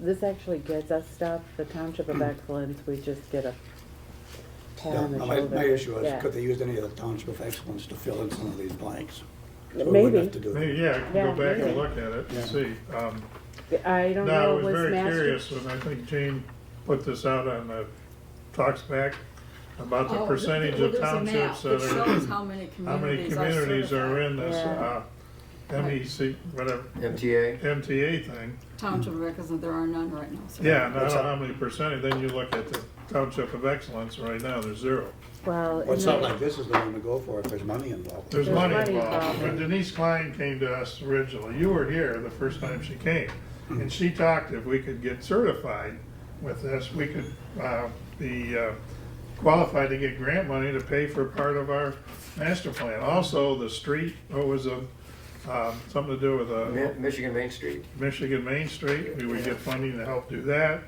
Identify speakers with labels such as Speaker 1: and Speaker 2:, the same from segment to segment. Speaker 1: this actually gets us stuff, the Township of Excellence, we just get a pat
Speaker 2: Yeah,
Speaker 1: on the
Speaker 2: My,
Speaker 1: shoulder.
Speaker 2: my issue
Speaker 1: Yeah.
Speaker 2: is, could they use any of the township of excellence to fill in some of these blanks? So we wouldn't have to
Speaker 1: Maybe,
Speaker 2: do that.
Speaker 3: Maybe, yeah, I can
Speaker 1: Yeah,
Speaker 3: go back
Speaker 1: maybe.
Speaker 3: and look at it
Speaker 2: Yeah.
Speaker 3: and see. Um,
Speaker 1: I don't
Speaker 3: Now, I
Speaker 1: know,
Speaker 3: was
Speaker 1: was
Speaker 3: very
Speaker 1: master,
Speaker 3: curious, and I think Jane put this out on the Talks Back, about the
Speaker 4: Oh,
Speaker 3: percentage
Speaker 4: well,
Speaker 3: of
Speaker 4: there's a map
Speaker 3: townships that
Speaker 4: That shows
Speaker 3: are,
Speaker 4: how many
Speaker 3: how many
Speaker 4: communities
Speaker 3: communities
Speaker 4: are
Speaker 3: are
Speaker 4: certified.
Speaker 3: in this, uh,
Speaker 1: Yeah.
Speaker 3: MEC, whatever,
Speaker 5: MTA?
Speaker 3: MTA thing.
Speaker 4: Township of Excellence, there are none right now. so-
Speaker 3: Yeah, and I
Speaker 2: What's
Speaker 3: don't know
Speaker 2: up?
Speaker 3: how many percentage, then you look at the Township of Excellence, right now, there's zero.
Speaker 1: well.
Speaker 2: Well,
Speaker 1: and
Speaker 2: something
Speaker 1: then-
Speaker 2: like this is the one to go for if there's money involved.
Speaker 3: There's
Speaker 1: There's
Speaker 3: money
Speaker 1: money
Speaker 3: involved.
Speaker 1: involved.
Speaker 3: When Denise Klein came to us originally, you were here the first time she came, and she talked if we could get certified with this, we could uh, be uh, qualified to get grant money to pay for part of our master plan. Also, the street, what was a, um, something to do with
Speaker 5: Mi-
Speaker 3: a
Speaker 5: Michigan Main Street.
Speaker 3: Michigan Main Street, we would get funding to help do that.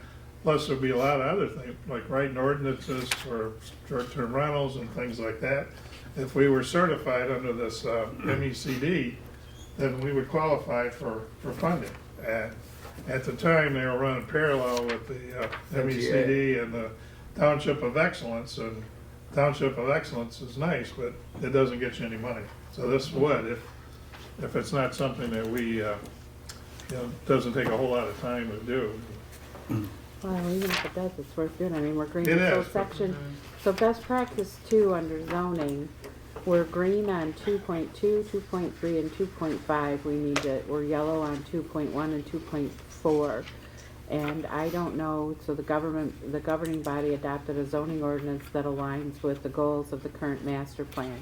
Speaker 3: Plus, there'd be a lot of other things, like writing ordinances for short-term rentals and things like that. If we were certified under this uh, MECD, then we would qualify for, for funding. And at the time, they were running parallel with the uh, MECD and the Township of Excellence. And Township of Excellence is nice, but it doesn't get you any money. So this would, if, if it's not something that we, uh, you know, doesn't take a whole lot of time to do.
Speaker 1: Well, even if it does, it's worth doing, I mean, we're green,
Speaker 3: It
Speaker 1: so
Speaker 3: is.
Speaker 1: section, so best practice two under zoning, we're green on two point two, two point three, and two point five, we need to, we're yellow on two point one and two point four. And I don't know, so the government, the governing body adopted a zoning ordinance that aligns with the goals of the current master plan.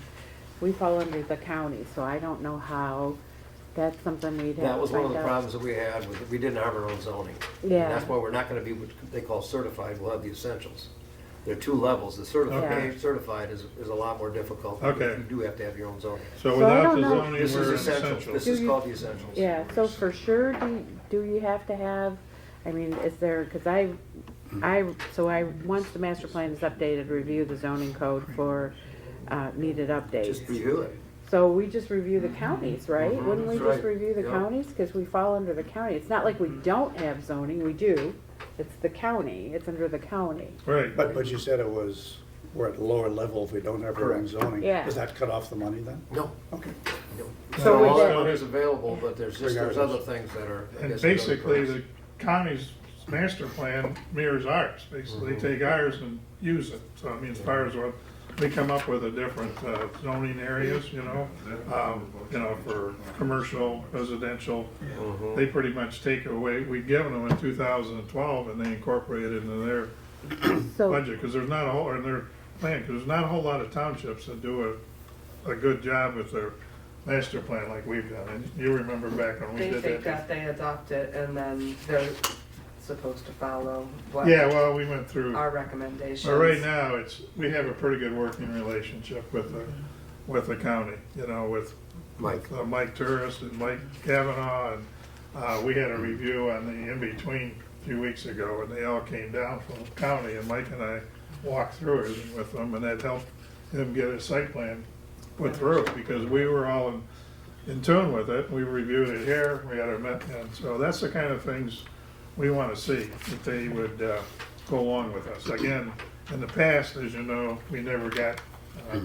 Speaker 1: We fall under the county, so I don't know how, that's something we'd have to find out.
Speaker 5: That was one of the problems that we had, was that we didn't have our own zoning. And
Speaker 1: Yeah.
Speaker 5: That's why we're not gonna be what they call certified, we'll have the essentials. There are two levels, the
Speaker 1: Okay.
Speaker 5: certified, certified is, is a lot more difficult. because
Speaker 3: Okay.
Speaker 5: You do have to have your own zoning.
Speaker 3: So
Speaker 1: So I
Speaker 3: without
Speaker 1: don't
Speaker 3: the
Speaker 1: know.
Speaker 3: zoning,
Speaker 5: This is
Speaker 3: we're
Speaker 5: essentials,
Speaker 3: essential.
Speaker 5: this
Speaker 1: Do
Speaker 5: is
Speaker 1: you-
Speaker 5: called the essentials.
Speaker 1: Yeah, so for sure, do, do you have to have, I mean, is there, cause I, I, so I, once the master plan is updated, review the zoning code for, uh, needed
Speaker 5: Just
Speaker 1: updates.
Speaker 5: review it.
Speaker 1: So we just review the counties, right?
Speaker 5: Mhm,
Speaker 1: Wouldn't we
Speaker 5: that's
Speaker 1: just
Speaker 5: right. Mm-hmm.
Speaker 1: review the
Speaker 5: Yeah.
Speaker 1: counties? Cause we fall under the county. It's not like we don't have zoning, we do. It's the county, it's under the county.
Speaker 3: Right.
Speaker 2: But, but you said it was, we're at lower level if we don't have our own
Speaker 5: Correct.
Speaker 2: zoning.
Speaker 1: Yeah.
Speaker 2: Does that cut off the money then?
Speaker 5: No,
Speaker 2: Okay.
Speaker 5: no.
Speaker 1: So
Speaker 5: So
Speaker 1: we
Speaker 5: all
Speaker 1: did-
Speaker 5: that is available, but there's just, there's other things that are. I
Speaker 3: And
Speaker 5: guess, another
Speaker 3: basically,
Speaker 5: price.
Speaker 3: the county's master plan mirrors ours, basically
Speaker 5: Mm-hmm.
Speaker 3: take ours and use it. So I mean, as far as what, we come up with a different uh, zoning areas, you know, um, you know, for commercial, residential. They pretty much take away, we'd given them in two thousand and twelve and they incorporated it into their
Speaker 1: So,
Speaker 3: budget, because there's not a whole, or their plan, because there's not a whole lot of townships that do a, a good job with their master plan like we've done. And you remember back when we
Speaker 6: They
Speaker 3: did
Speaker 6: take
Speaker 3: that.
Speaker 6: that, they adopt it, and then they're supposed to follow what
Speaker 3: Yeah, well, we went through,
Speaker 6: our recommendations.
Speaker 3: but right now, it's, we have a pretty good working relationship with the, with the county, you know, with
Speaker 5: Mike,
Speaker 3: uh, Mike Turris and Mike Kavanaugh, and, uh, we had a review on the in-between a few weeks ago, and they all came down from the county, and Mike and I walked through it with them, and that helped him get his site plan put through, because we were all in, in tune with it, we reviewed it here, we had our, met- and so that's the kind of things we wanna see, that they would, uh, go along with us. Again, in the past, as you know, we never got, uh,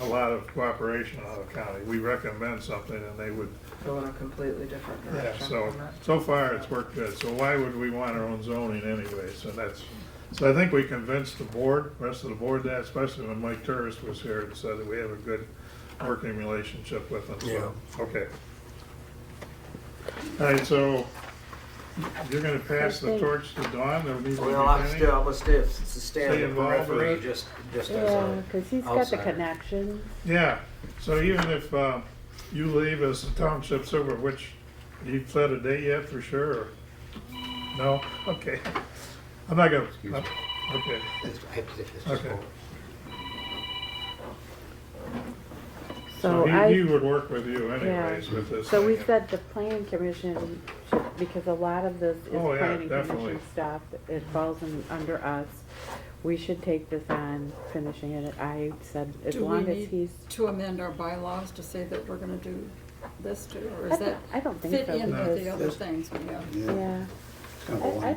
Speaker 3: a lot of cooperation out of county. We recommend something and they would,
Speaker 6: Go in a completely different
Speaker 3: yeah,
Speaker 6: direction.
Speaker 3: so,
Speaker 6: from that.
Speaker 3: so far it's worked good. So why would we want our own zoning anyway? So that's, so I think we convinced the board, rest of the board that, especially when Mike Turris was here and said that we have a good working relationship with them, so, okay. All right, so you're gonna pass the torch to Dawn, there needs to be
Speaker 5: well, I'm
Speaker 3: any-
Speaker 5: still, I'm gonna stay, stand in the
Speaker 3: involved with
Speaker 5: periphery,
Speaker 3: it.
Speaker 5: just, just as
Speaker 1: yeah,
Speaker 5: a.
Speaker 1: cause he's got the
Speaker 5: outsider.
Speaker 1: connections.
Speaker 3: Yeah, so even if uh, you leave as the township super, which you've set a date yet for sure? or- No? Okay. I'm not gonna,
Speaker 5: me.
Speaker 3: I'm- okay.
Speaker 5: I have to take this just
Speaker 3: Okay.
Speaker 5: over.
Speaker 1: So
Speaker 3: he-
Speaker 1: I.
Speaker 3: He would work with you
Speaker 1: Yeah.
Speaker 3: anyways with this.
Speaker 1: So we
Speaker 3: thing.
Speaker 1: said the planning commission, should- because a lot of this is
Speaker 3: Oh, yeah,
Speaker 1: planning
Speaker 3: definitely.
Speaker 1: commission stuff, it falls in, under us. We should take this on, finishing it, I said, as
Speaker 4: Do we
Speaker 1: long as
Speaker 4: need
Speaker 1: he's,
Speaker 4: to amend our bylaws to say that we're gonna do this too, or
Speaker 1: I
Speaker 4: is
Speaker 1: don't,
Speaker 4: that
Speaker 1: I don't think
Speaker 4: fit
Speaker 1: so,
Speaker 4: in with
Speaker 1: because,
Speaker 4: the other things we have?
Speaker 2: Yeah.
Speaker 1: yeah.
Speaker 2: It's kind of a
Speaker 1: I- I
Speaker 2: one.